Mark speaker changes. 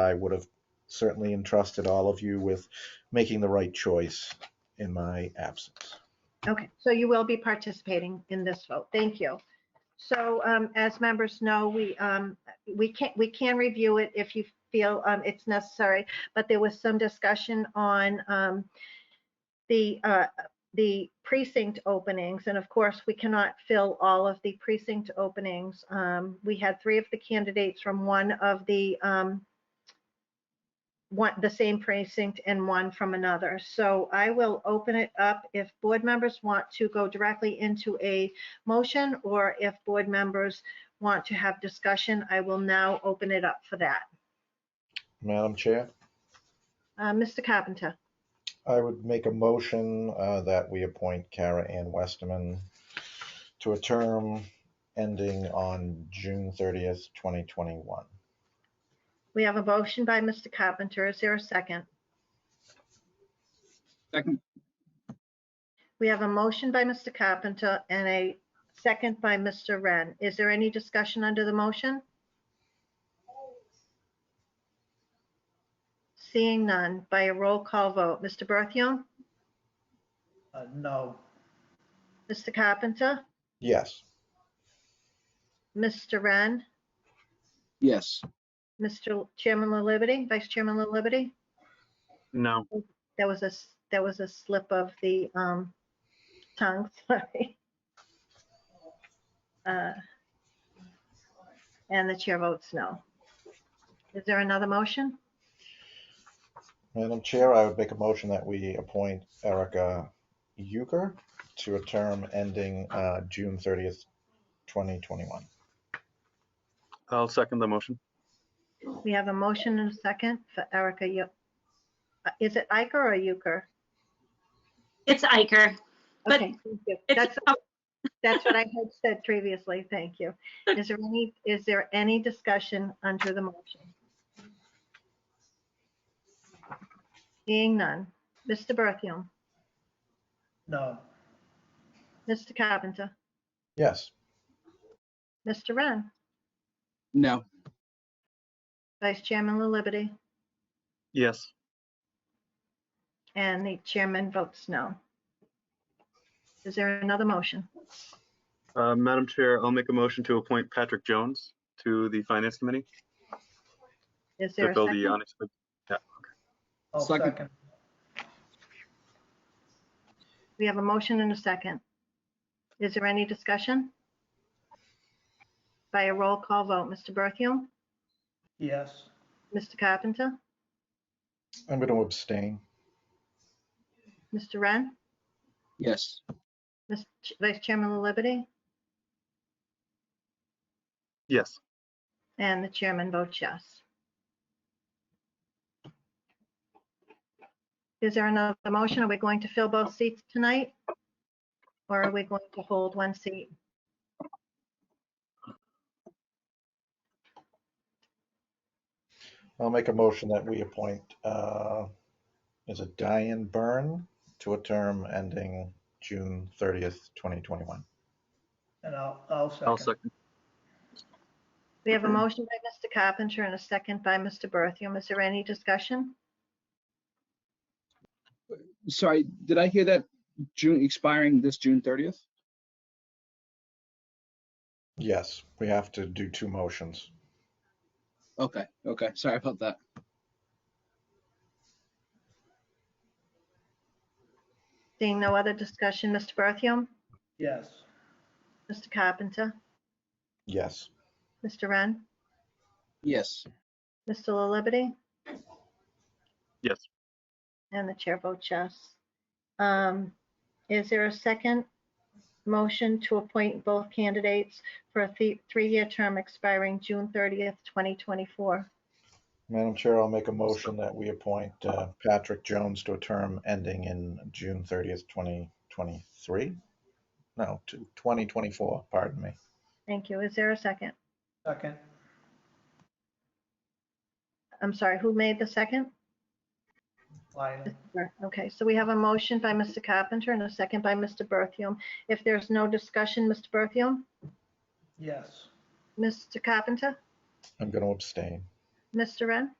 Speaker 1: I would have certainly entrusted all of you with making the right choice in my absence.
Speaker 2: Okay, so you will be participating in this vote. Thank you. So um, as members know, we, um, we can, we can review it if you feel um, it's necessary, but there was some discussion on um, the, uh, the precinct openings, and of course, we cannot fill all of the precinct openings. Um, We had three of the candidates from one of the, um, one, the same precinct and one from another. So I will open it up if board members want to go directly into a motion or if board members want to have discussion, I will now open it up for that.
Speaker 1: Madam Chair,
Speaker 2: Uh, Mr. Carpenter,
Speaker 1: I would make a motion uh, that we appoint Kara Ann Westerman to a term ending on June 30th, 2021.
Speaker 2: we have a motion by Mr. Carpenter. Is there a second?
Speaker 3: Second,
Speaker 2: We have a motion by Mr. Carpenter and a second by Mr. Wren. Is there any discussion under the motion? Seeing none by a roll call vote. Mr. Berthium,
Speaker 4: Uh, no,
Speaker 2: Mr. Carpenter,
Speaker 1: Yes,
Speaker 2: Mr. Wren,
Speaker 3: yes.
Speaker 2: Mr. Chairman La Liberty, Vice Chairman La Liberty.
Speaker 3: No.
Speaker 2: That was a, s- that was a slip of the um, tongue, sorry. Uh, And the chair votes no. Is there another motion?
Speaker 1: Madam Chair, I would make a motion that we appoint Erica Euchre to a term ending uh, June 30th, 2021.
Speaker 5: I'll second the motion.
Speaker 2: We have a motion and a second for Erica. Eu- uh, Is it Iker or Euchre?
Speaker 6: It's Iker. But
Speaker 2: Okay, thank you.
Speaker 6: It's,
Speaker 2: That's, that's what I had said previously. Thank you. Is there any, is there any discussion under the motion? Seeing none. Mr. Berthium,
Speaker 4: no,
Speaker 2: Mr. Carpenter,
Speaker 1: Yes,
Speaker 2: Mr. Ren,
Speaker 3: No,
Speaker 2: Vice Chairman La Liberty,
Speaker 5: Yes,
Speaker 2: and the chairman votes no. Is there another motion?
Speaker 5: Uh, Madam Chair, I'll make a motion to appoint Patrick Jones to the Finance Committee
Speaker 2: Is there
Speaker 5: to
Speaker 2: a
Speaker 5: fill the
Speaker 2: second?
Speaker 5: unexpected.
Speaker 4: I'll
Speaker 3: Second.
Speaker 4: second,
Speaker 2: We have a motion and a second. Is there any discussion? By a roll call vote, Mr. Berthium,
Speaker 4: yes,
Speaker 2: Mr. Carpenter,
Speaker 1: I'm going to abstain.
Speaker 2: Mr. Ren,
Speaker 3: yes.
Speaker 2: Ms. Ch- Vice Chairman La Liberty,
Speaker 5: Yes,
Speaker 2: and the chairman votes yes. Is there another motion? Are we going to fill both seats tonight? Or are we going to hold one seat?
Speaker 1: I'll make a motion that we appoint, uh, is it Diane Byrne to a term ending June 30th, 2021?
Speaker 4: and I'll, I'll
Speaker 5: I'll
Speaker 4: second,
Speaker 5: second.
Speaker 2: We have a motion by Mr. Carpenter and a second by Mr. Berthium. Is there any discussion?
Speaker 3: Sorry, did I hear that June expiring this June 30th?
Speaker 1: Yes, we have to do two motions.
Speaker 3: Okay, okay, sorry about that.
Speaker 2: Seeing no other discussion, Mr. Berthium,
Speaker 4: yes,
Speaker 2: Mr. Carpenter,
Speaker 1: Yes,
Speaker 2: Mr. Ren,
Speaker 3: Yes,
Speaker 2: Mr. La Liberty,
Speaker 5: Yes,
Speaker 2: and the chair votes yes. Um, Is there a second motion to appoint both candidates for a thi- three-year term expiring June 30th, 2024?
Speaker 1: Madam Chair, I'll make a motion that we appoint uh, Patrick Jones to a term ending in June 30th, 2023? No, to 2024, pardon me.
Speaker 2: Thank you. Is there a second?
Speaker 4: second,
Speaker 2: I'm sorry, who made the second?
Speaker 4: Lyon,
Speaker 2: Okay, so we have a motion by Mr. Carpenter and a second by Mr. Berthium. If there's no discussion, Mr. Berthium,
Speaker 4: yes,
Speaker 2: Mr. Carpenter,
Speaker 1: I'm going to abstain.
Speaker 2: Mr. Ren,